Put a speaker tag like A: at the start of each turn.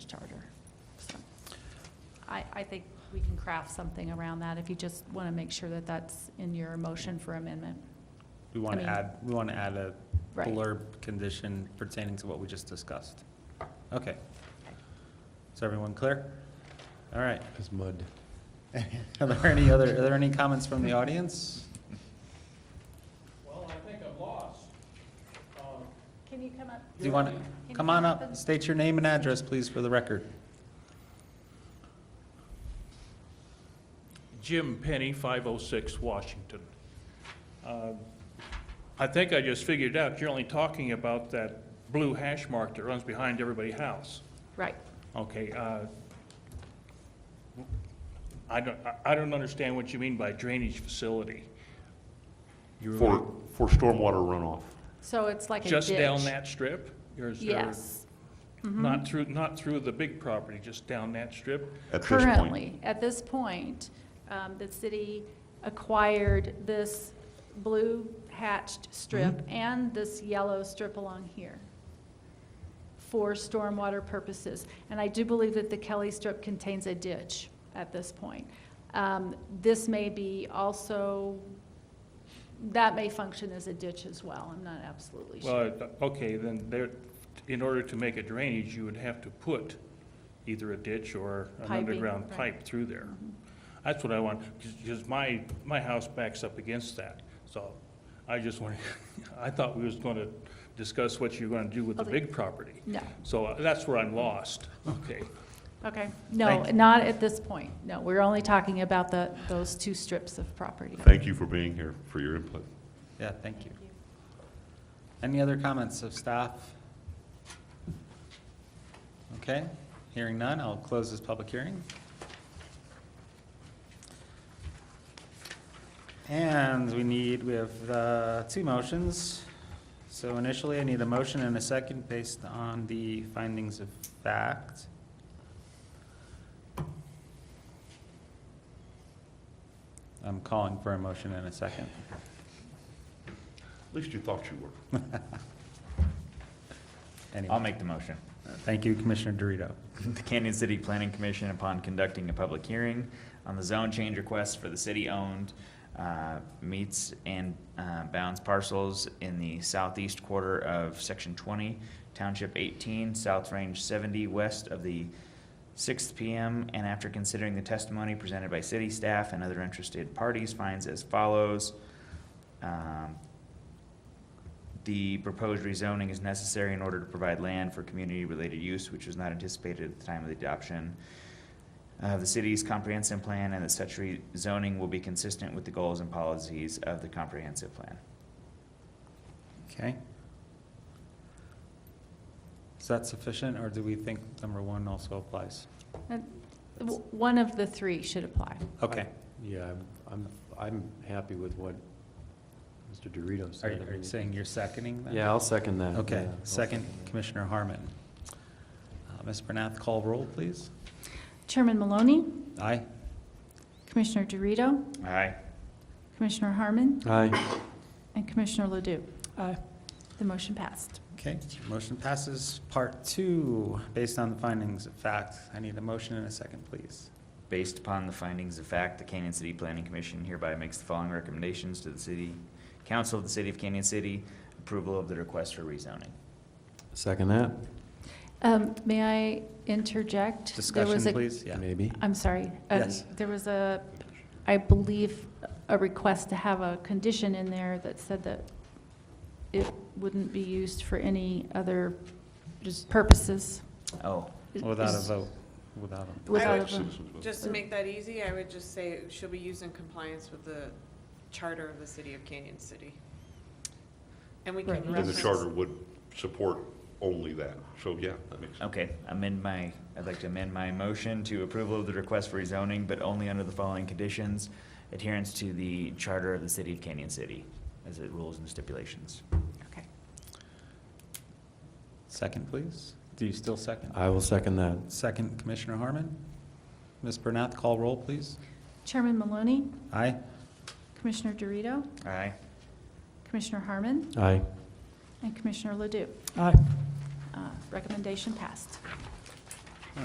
A: I, I think we can craft something around that if you just want to make sure that that's in your motion for amendment.
B: We want
A: I
B: to
A: mean-
B: add, we want to add a
A: Right.
B: blurb condition pertaining to what we just discussed. Okay. Is everyone clear? All right.
C: It's mud.
B: Are there any other, are there any comments from the audience?
D: Well, I think I'm lost. Um,
A: Can you come up?
B: Do you want to, come on up, state your name and address, please, for the record.
D: Jim Penny, 506 Washington. Uh, I think I just figured out, you're only talking about that blue hash mark that runs behind everybody's house.
A: Right.
D: Okay, uh, I don't, I- I don't understand what you mean by drainage facility. You're-
E: For, for stormwater runoff.
A: So it's like a ditch.
D: Just down that strip? Or is there-
A: Yes. Mm-hmm.
D: Not through, not through the big property, just down that strip?
E: At this point,
A: Currently, at this point, um, the city acquired this blue hatched
E: Mm-hmm.
A: strip and this yellow strip along here for stormwater purposes. And I do believe that the Kelly strip contains a ditch at this point. Um, This may be also, that may function as a ditch as well. I'm not absolutely sure.
D: Well, okay, then there, in order to make a drainage, you would have to put either a ditch or an
A: Piping,
D: underground
A: right. Mm-hmm.
D: pipe through there. That's what I want, because my, my house backs up against that, so I just want, I thought we was gonna discuss what you're gonna do with the
A: Okay.
D: big property.
A: No.
D: So uh, that's where I'm lost, okay.
A: Okay, no,
D: Thank you.
A: not at this point, no, we're only talking about the, those two strips of property.
E: thank you for being here, for your input.
B: Yeah, thank you. Any other comments of staff? Okay, hearing none, I'll close this public hearing. And we need, we have uh, two motions. So initially, I need a motion and a second based on the findings of fact. I'm calling for a motion and a second.
E: At least you thought you were.
B: Anyway.
F: I'll make the motion.
B: Thank you, Commissioner Dorito.
F: The Canyon City Planning Commission, upon conducting a public hearing on the zone change request for the city-owned uh, meets and uh, bounds parcels in the southeast quarter of Section 20, Township 18, South Range 70, west of the 6th PM, and after considering the testimony presented by city staff and other interested parties, finds as follows. Um, The proposed rezoning is necessary in order to provide land for community-related use, which was not anticipated at the time of the adoption of the city's comprehensive plan, and that such rezoning will be consistent with the goals and policies of the comprehensive plan.
B: Okay. Is that sufficient, or do we think number one also applies?
A: And Uh, w- One of the three should apply.
B: Okay.
C: Yeah, I'm, I'm, I'm happy with what Mr. Dorito
B: Are you,
C: said. I
B: are you
C: mean,
B: saying you're seconding that?
C: Yeah, I'll second that.
B: Okay,
C: yeah, I'll
B: second, Commissioner Harmon. Uh, Ms. Bernath, call roll, please.
A: Chairman Maloney,
B: Aye?
A: Commissioner Dorito,
F: Aye.
A: Commissioner Harmon,
C: Aye.
A: and Commissioner Ledoux. The motion passed.
B: Okay, motion passes. Part two, based on the findings of fact. I need a motion and a second, please.
F: Based upon the findings of fact, the Canyon City Planning Commission hereby makes the following recommendations to the city, council of the city of Canyon City, approval of the request for rezoning.
C: Second that,
A: Um, May I interject? There was
B: Discussion,
A: a-
B: please? Yeah.
C: maybe.
A: I'm sorry. Uh,
B: Yes.
A: There was a, I believe, a request to have a condition in there that said that it wouldn't be used for any other just purposes.
F: Oh,
B: Without a vote, without a,
A: Without a
G: would-
A: vote.
E: Citizens vote.
G: Just to make that easy, I would just say it should be used in compliance with the charter of the city of Canyon City. And we can
A: Right. And the
E: And the
G: reference.
E: charter would support only that, so yeah, that makes sense.
F: okay, amend my, I'd like to amend my motion to approval of the request for rezoning, but only under the following conditions. Adherence to the charter of the city of Canyon City, as it rules and stipulations.
G: Okay.
B: second, please? Do you still second?
C: I will second that.
B: Second, Commissioner Harmon? Ms. Bernath, call roll, please.
A: Chairman Maloney,
B: Aye?
A: Commissioner Dorito,
F: Aye.
A: Commissioner Harmon,
C: Aye.
A: and Commissioner Ledoux.
C: Aye.
A: Uh, Recommendation passed.